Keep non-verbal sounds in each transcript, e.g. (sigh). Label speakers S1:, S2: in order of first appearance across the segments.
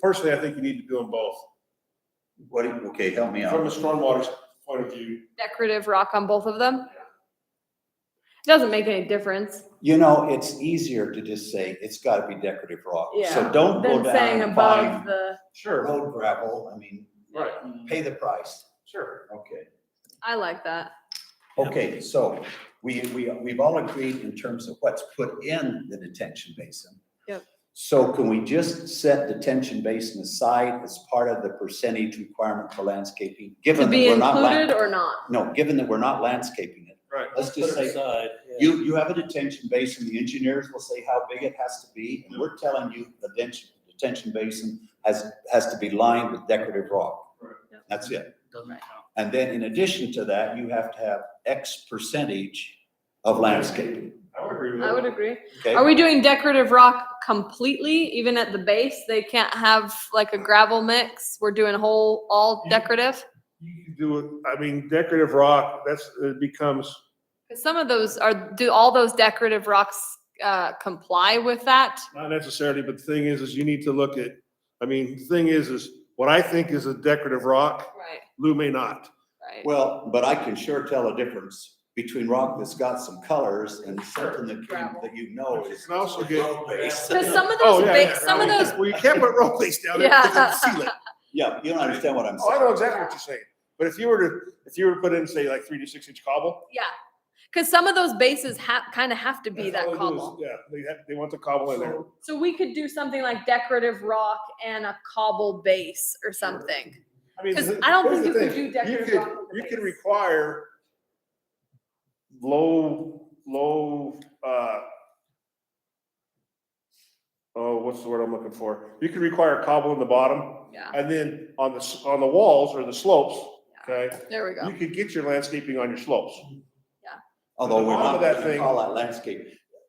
S1: personally, I think you need to do them both.
S2: What, do you- okay, help me
S1: From a
S2: out.
S1: stormwater point of view,
S3: decorative rock on both of them? Doesn't make any difference.
S2: You know, it's easier to just say, it's gotta be decorative rock. So
S3: Yeah,
S2: don't go
S3: Than saying
S2: down and buy
S3: above the,
S1: sure,
S2: road gravel, I mean,
S1: right,
S2: pay the price.
S1: sure.
S2: Okay,
S3: I like that.
S2: okay, so we, we, we've all agreed in terms of what's put in the detention basin.
S3: Yep.
S2: So can we just set detention basin aside as part of the percentage requirement for landscaping?
S3: To
S2: Given that
S3: be
S2: we're not,
S3: included
S2: lan-
S3: or not?
S2: no, given that we're not landscaping it,
S1: Right.
S2: let's just say
S4: You,
S2: You, you have a detention basin, the engineers will say how big it has to be, and we're telling you the detention, detention basin has, has to be lined with decorative rock.
S1: Right.
S3: Yep.
S2: That's it.
S4: doesn't count.
S2: And then in addition to that, you have to have X percentage of landscaping,
S1: I would agree with
S3: I would
S1: that.
S3: agree. Are
S2: okay?
S3: we doing decorative rock completely, even at the base? They can't have like a gravel mix? We're doing whole, all
S1: You-
S3: decorative?
S1: You can do it, I mean, decorative rock, that's, it becomes,
S3: Cause some of those are, do all those decorative rocks, uh, comply with that?
S1: not necessarily, but the thing is, is you need to look at, I mean, the thing is, is what I think is a decorative rock,
S3: Right,
S1: Lou may not.
S3: right.
S2: Well, but I can sure tell a difference between rock that's got some colors and something that, can-
S3: Gravel.
S2: that you know
S1: You
S2: is.
S1: can also get-
S2: road-based.
S3: Cause some of
S1: Oh
S3: those,
S1: yeah,
S3: ba-
S1: yeah,
S3: some of
S1: yeah.
S3: those,
S1: Well, you can't put road base down there
S3: Yeah.
S1: because it'll seal it.
S2: Yeah, you don't understand what I'm
S1: Oh, I know
S2: saying.
S1: exactly what you're saying. But if you were to, if you were to put in, say, like three to six inch cobble.
S3: yeah. Cause some of those bases have, kinda have to be
S1: that's
S3: that
S1: all they do is-
S3: cobble.
S1: Yeah, they have, they want the cobble in there.
S3: So we could do something like decorative rock and a cobble base or something.
S1: I mean,
S3: 'Cause
S1: th-
S3: I don't
S1: here's
S3: think
S1: the
S3: you could
S1: thing.
S3: do decorative
S1: could-
S3: rock with a
S1: You can
S3: base.
S1: require low, low, uh, oh, what's the word I'm looking for? You can require cobble in the bottom
S3: Yeah,
S1: and then on the, s- on the walls or the slopes, okay?
S3: there we
S1: You
S3: go.
S1: could get your landscaping on your slopes.
S2: Although we're
S1: All
S2: not
S1: of that
S2: gonna
S1: thing-
S2: call that landscape.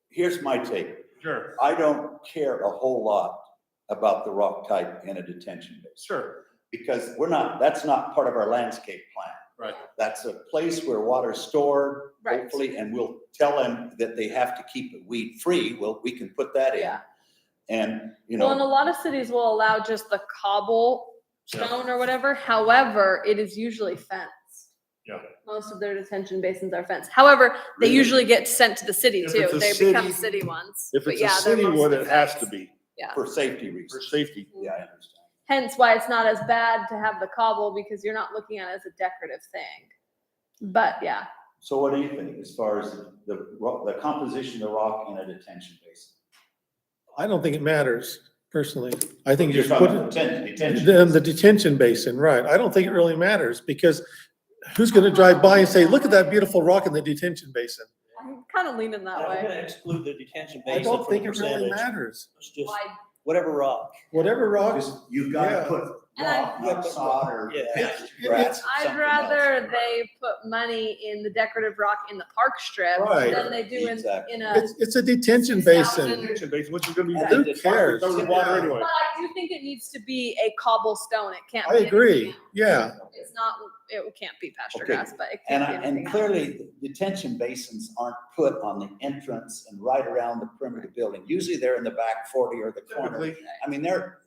S2: Here's my take.
S1: Sure,
S2: I don't care a whole lot about the rock type in a detention basin,
S1: sure.
S2: because we're not, that's not part of our landscape plan.
S1: Right.
S2: That's a place where water's stored,
S3: Right.
S2: hopefully, and we'll tell them that they have to keep it weed-free, well, we can put that in.
S3: Yeah.
S2: And, you
S3: Well, and a
S2: know,
S3: lot of cities will allow just the cobble
S1: Yeah.
S3: stone or whatever. However, it is usually fenced.
S1: Yeah.
S3: Most of their detention basins are fenced. However, they
S1: Really?
S3: usually get sent to the city
S1: If
S3: too.
S1: it's a
S3: They become
S1: city-
S3: city ones.
S1: If
S3: But
S1: it's a
S3: yeah, they're
S1: city one,
S3: mostly
S1: it has to
S3: fenced.
S1: be
S2: for safety reasons.
S1: for safety.
S2: Yeah, I understand.
S3: Hence why it's not as bad to have the cobble because you're not looking at it as a decorative thing. But yeah,
S2: So what do you think as far as the, ro- the composition of the rock in a detention basin?
S5: I don't think it matters personally. I think you
S2: You're
S5: just
S2: talking
S5: put
S2: about
S5: it,
S2: detention- detention
S5: the, the
S2: basin.
S5: detention basin, right. I don't think it really matters because who's gonna drive by and say, look at that beautiful rock in the detention basin?
S3: I'm kind of leaning that
S4: I'm
S3: way.
S4: gonna exclude the detention
S5: I
S4: basin
S5: don't
S4: from
S5: think
S4: the
S5: it really
S4: percentage.
S5: matters.
S4: It's just
S3: Why
S4: whatever rock.
S5: Whatever rocks,
S2: Just- You've gotta
S5: Yeah.
S2: put
S3: And I-
S2: rock, not sod or
S4: Yeah.
S2: patch,
S5: It-
S2: grass,
S5: it's-
S3: I'd
S2: something
S3: rather
S2: else.
S3: they put money in the decorative rock in the park strip
S5: Right.
S3: than they do in,
S2: Exactly.
S3: in a.
S5: it's, it's a detention basin.
S1: Detention basin, which is gonna be.
S2: And
S5: Who
S2: then just-
S5: cares?
S1: Throw the water
S5: Yeah.
S1: anyway.
S3: But I do think it needs to be a cobblestone. It can't.
S5: I
S3: be
S5: agree.
S3: anything else.
S5: Yeah.
S3: It's not, it can't be pasture
S2: Okay.
S3: grass, but it
S2: And,
S3: can't
S2: I-
S3: be anything
S2: and
S3: else.
S2: clearly, the detention basins aren't put on the entrance and right around the perimeter of the building. Usually they're in the back forty or the corner.
S1: Typically,
S2: I mean, they're.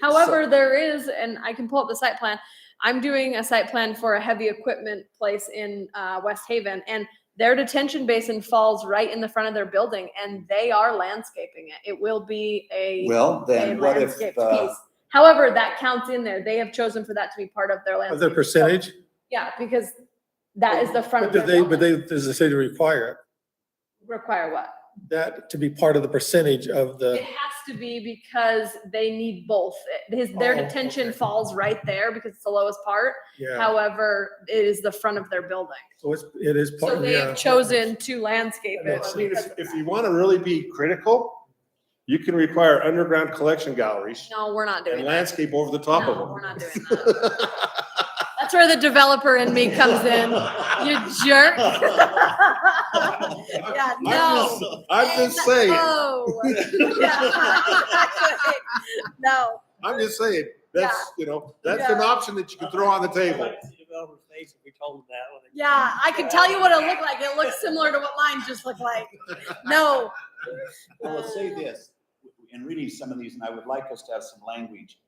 S3: However, there is, and I can pull up the site plan. I'm doing a site plan for a heavy equipment place in uh, West Haven, and their detention basin falls right in the front of their building, and they are landscaping it. It will be
S2: So-
S3: a
S2: Well,
S3: a
S2: then what if,
S3: landscaped
S2: uh,
S3: piece. However, that counts in there. They have chosen for that to be part of their
S5: Of
S3: landscape.
S5: their percentage,
S3: Yeah, because that is the front
S5: but
S3: of their
S5: do they, but
S3: building.
S5: they, does the city require it?
S3: Require what?
S5: that to be part of the percentage of
S3: It
S5: the,
S3: has to be because they need both. It- His, their
S5: Oh,
S3: detention
S5: okay.
S3: falls right there because it's the lowest part.
S5: yeah.
S3: However, it is the front of their building.
S5: So it's, it is
S3: So
S5: part,
S3: they have
S5: Oh, yeah.
S3: chosen to landscape
S1: I mean,
S3: it.
S1: I mean,
S3: because
S1: if,
S3: of
S1: if
S3: that.
S1: you wanna really be critical, you can require underground collection galleries
S3: No, we're not
S1: and
S3: doing that.
S1: landscape over the top of
S3: No,
S1: them.
S3: we're not doing that.
S1: (laughs)
S3: That's where the developer in me comes in. You
S1: (laughs)
S3: jerk. Yeah, no.
S1: I'm just saying,
S3: No. Yeah. (laughs) No.
S1: I'm just saying, that's, you know, that's an
S3: Yeah.
S1: option that you can throw on the
S4: I
S1: table.
S4: like to see developers' face if we told them that when they-
S3: Yeah, I can tell you what it looked like. It looks similar to what mine just looked like. No.
S2: I will say this, in reading some of these, and I would like us to have some language